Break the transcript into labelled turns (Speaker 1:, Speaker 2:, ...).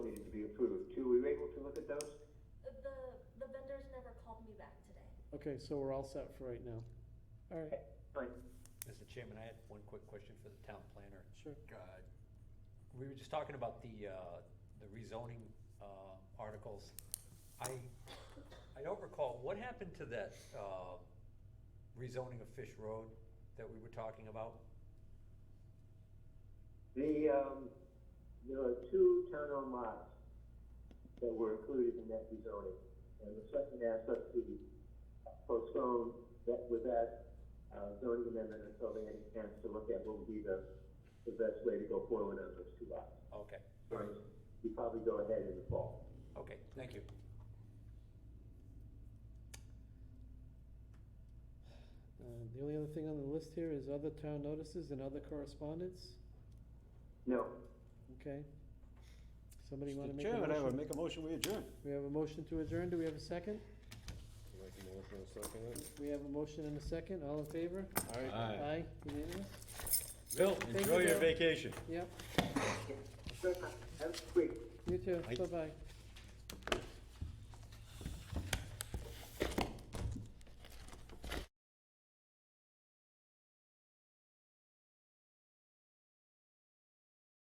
Speaker 1: look at those?
Speaker 2: The, the vendors never called me back today.
Speaker 3: Okay, so we're all set for right now. All right,
Speaker 1: Right,
Speaker 4: Mr. Chairman, I had one quick question for the town planner.
Speaker 3: sure.
Speaker 4: Uh, We were just talking about the, uh, the rezoning uh, articles. I, I don't recall, what happened to that uh, rezoning of Fish Road that we were talking about?
Speaker 1: the, um, there are two town-owned lots that were included in that rezoning. And the selectmen asked us to postpone that, with that, uh, zoning amendment until they had a chance to look at what would be the, the best way to go forward on those two lots.
Speaker 4: Okay,
Speaker 1: So we probably go ahead in the fall.
Speaker 4: okay, thank you.
Speaker 3: Uh, The only other thing on the list here is other town notices and other correspondence.
Speaker 1: No,
Speaker 3: Okay. Somebody want to
Speaker 5: Mr.
Speaker 3: make a
Speaker 5: Chairman, I would
Speaker 3: motion?
Speaker 5: make a motion, we adjourn.
Speaker 3: We have a motion to adjourn. Do we have a second?
Speaker 6: Make a motion and second it.
Speaker 3: We have a motion and a second. All in favor? Aye, unanimous?
Speaker 5: Bill,
Speaker 3: Thank you,
Speaker 5: enjoy your
Speaker 3: Bill.
Speaker 5: vacation.
Speaker 3: Yep,
Speaker 1: that's quick.
Speaker 3: you too.
Speaker 5: Aye.
Speaker 3: Bye-bye.